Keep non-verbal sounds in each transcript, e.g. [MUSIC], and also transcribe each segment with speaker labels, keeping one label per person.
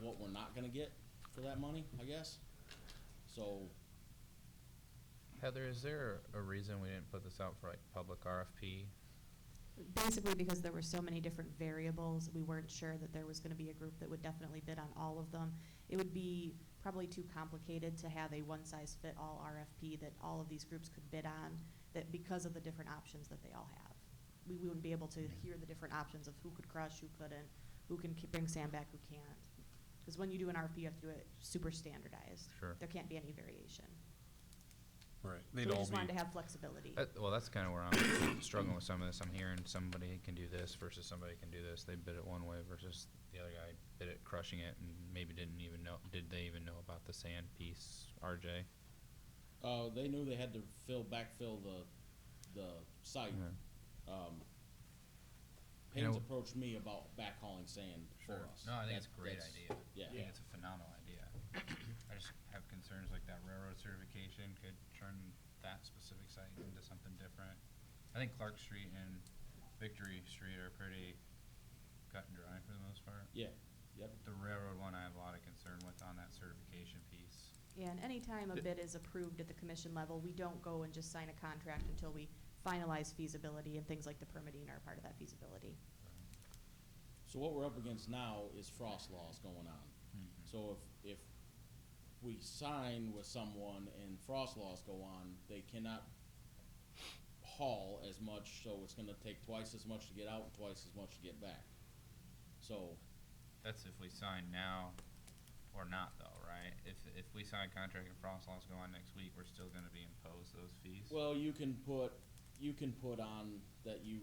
Speaker 1: what we're not gonna get for that money, I guess. So,
Speaker 2: Heather, is there a reason we didn't put this out for like public RFP?
Speaker 3: Basically, because there were so many different variables, we weren't sure that there was gonna be a group that would definitely bid on all of them. It would be probably too complicated to have a one-size-fit-all RFP that all of these groups could bid on, that because of the different options that they all have. We we wouldn't be able to hear the different options of who could crush, who couldn't, who can k- bring sand back, who can't. Because when you do an RFP, you have to do it super standardized.
Speaker 2: Sure.
Speaker 3: There can't be any variation.
Speaker 4: Right.
Speaker 3: So
Speaker 4: They'd
Speaker 3: we
Speaker 4: all
Speaker 3: just wanted
Speaker 4: be,
Speaker 3: to have flexibility.
Speaker 2: That, well, that's kind of where I'm [COUGHS] struggling with some of this. I'm hearing somebody can do this versus somebody can do this. They bid it one way versus the other guy bid it crushing it and maybe didn't even know, did they even know about the sand piece, RJ?
Speaker 1: uh, they knew they had to fill, backfill the, the site.
Speaker 2: Yeah.
Speaker 1: Um,
Speaker 2: You
Speaker 1: Payne's
Speaker 2: know-
Speaker 1: approached me about backhauling sand for us.
Speaker 2: No, I think
Speaker 1: That-
Speaker 2: it's a great
Speaker 1: that's-
Speaker 2: idea. I
Speaker 1: Yeah,
Speaker 2: think it's a phenomenal idea. I just have concerns like that railroad certification could turn that specific site into something different. I think Clark Street and Victory Street are pretty cut and dry for the most part.
Speaker 1: yeah, yep.
Speaker 2: The railroad one, I have a lot of concern with on that certification piece.
Speaker 3: Yeah, and anytime a
Speaker 4: Th-
Speaker 3: bid is approved at the commission level, we don't go and just sign a contract until we finalize feasibility and things like the permitting are part of that feasibility.
Speaker 1: So what we're up against now is frost laws going on. So if, if we sign with someone and frost laws go on, they cannot haul as much, so it's gonna take twice as much to get out and twice as much to get back. So,
Speaker 2: That's if we sign now or not though, right? If, if we sign a contract and frost laws go on next week, we're still gonna be imposed those fees?
Speaker 1: well, you can put, you can put on that you,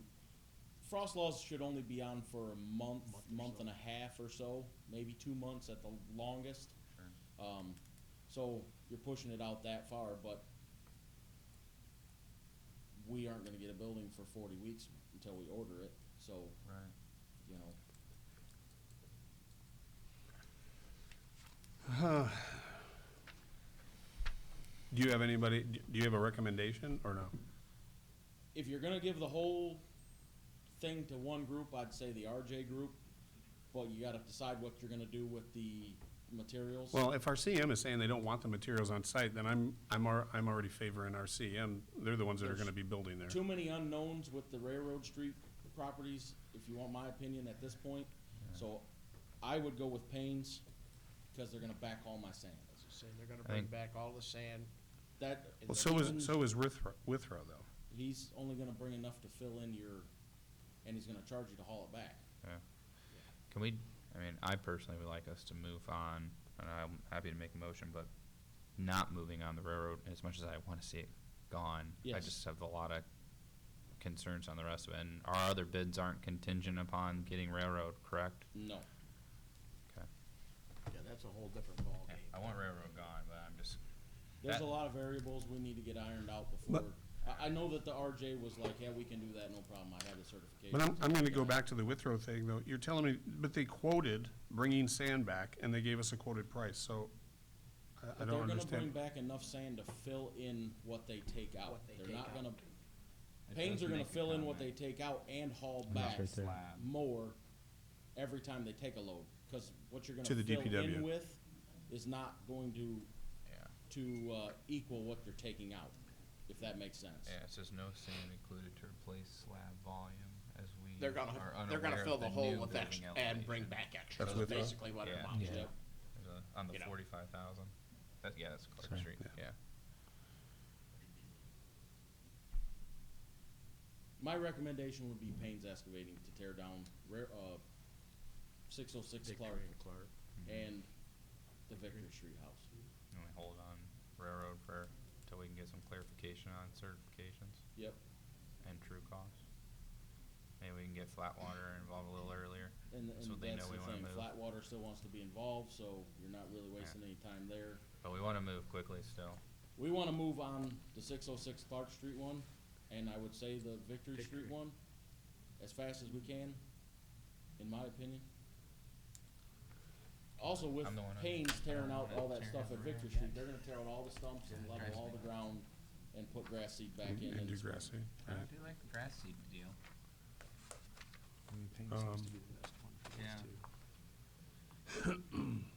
Speaker 1: frost laws should only be on for a month, month and a half or so, maybe two months at the longest.
Speaker 2: Sure.
Speaker 1: Um, so you're pushing it out that far, but we aren't gonna get a building for forty weeks until we order it, so,
Speaker 2: Right.
Speaker 1: you know.
Speaker 4: [SIGHS] do you have anybody, do you have a recommendation or no?
Speaker 1: If you're gonna give the whole thing to one group, I'd say the RJ group, but you gotta decide what you're gonna do with the materials.
Speaker 4: Well, if our CM is saying they don't want the materials on site, then I'm, I'm, al- I'm already favoring our CM. They're the ones that are gonna be building there.
Speaker 1: Too many unknowns with the railroad street properties, if you want my opinion at this point, so I would go with Payne's, cause they're gonna back all my sand.
Speaker 5: Saying they're gonna
Speaker 2: I
Speaker 5: bring
Speaker 2: think-
Speaker 5: back all the sand.
Speaker 1: That.
Speaker 4: Well, so is, so is Withrow, Withrow though.
Speaker 1: he's only going to bring enough to fill in your, and he's going to charge you to haul it back.
Speaker 2: Yeah. Can we, I mean, I personally would like us to move on, and I'm happy to make a motion, but not moving on the railroad as much as I wanna see it gone. I
Speaker 1: Yes.
Speaker 2: just have a lot of concerns on the rest of it, and our other bids aren't contingent upon getting railroad, correct?
Speaker 1: No,
Speaker 2: Okay.
Speaker 5: Yeah, that's a whole different ballgame.
Speaker 2: I want railroad gone, but I'm just.
Speaker 1: there's a
Speaker 2: That-
Speaker 1: lot of variables we need to get ironed out before. I, I know that the RJ was like, yeah, we can do that, no problem. I have the certification.
Speaker 4: But I'm, I'm gonna go back to the Withrow thing though. You're telling me, but they quoted bringing sand back and they gave us a quoted price, so I, I
Speaker 1: But
Speaker 4: don't
Speaker 1: they're going to bring
Speaker 4: understand.
Speaker 1: back enough sand to fill in what they take out.
Speaker 5: What they
Speaker 1: they're
Speaker 5: take
Speaker 1: not
Speaker 5: out.
Speaker 1: going to. Pains are going to fill in what they take out and haul back more every time they take a load because what you're going
Speaker 4: To the
Speaker 1: fill
Speaker 4: DPW.
Speaker 1: in with is not going to
Speaker 2: Yeah,
Speaker 1: to uh, equal what you're taking out, if that makes sense.
Speaker 2: yeah, it says no sand included to replace slab volume as we
Speaker 5: They're gonna, they're gonna fill the hole with
Speaker 2: that
Speaker 5: extra and bring back extra,
Speaker 4: That's
Speaker 5: is
Speaker 4: with uh, us.
Speaker 5: basically what it
Speaker 2: Yeah.
Speaker 5: amounts to.
Speaker 1: Yep.
Speaker 2: On
Speaker 5: You
Speaker 2: the
Speaker 5: know.
Speaker 2: forty-five thousand, that, yeah, that's Clark Street, yeah.
Speaker 1: My recommendation would be Payne's Excavating to tear down rare, uh, six oh six
Speaker 5: Dick
Speaker 1: Clark
Speaker 5: Crane Clark.
Speaker 2: Mm-hmm.
Speaker 1: and the Victory Street House.
Speaker 2: And we hold on railroad for, till we can get some clarification on certifications
Speaker 1: Yep,
Speaker 2: and true costs. Maybe we can get Flatwater involved a little earlier.
Speaker 1: and,
Speaker 2: So
Speaker 1: and
Speaker 2: they
Speaker 1: that's
Speaker 2: know
Speaker 1: the
Speaker 2: we wanna
Speaker 1: thing,
Speaker 2: move.
Speaker 1: Flatwater still wants to be involved, so you're not really wasting any time there.
Speaker 2: But we wanna move quickly still.
Speaker 1: We wanna move on the six oh six Clark Street one, and I would say the Victory
Speaker 5: Victory.
Speaker 1: Street one, as fast as we can, in my opinion. Also with
Speaker 2: I'm the one on-
Speaker 1: Payne's
Speaker 2: I'm
Speaker 1: tearing
Speaker 2: the
Speaker 1: out
Speaker 2: one
Speaker 1: all
Speaker 2: that
Speaker 1: that stuff at
Speaker 2: tearing
Speaker 1: Victory
Speaker 2: everywhere.
Speaker 1: Street, they're gonna tear out all the stumps and
Speaker 2: Yeah,
Speaker 1: level
Speaker 2: drives
Speaker 1: all
Speaker 2: me
Speaker 1: the
Speaker 2: nuts.
Speaker 1: ground and put grass seed back in.
Speaker 4: And
Speaker 1: in
Speaker 4: do
Speaker 1: the spring.
Speaker 4: grassy, Mm-hmm. right.
Speaker 2: do like the grass seed deal.
Speaker 4: seems Um, to
Speaker 5: be the best one
Speaker 2: yeah.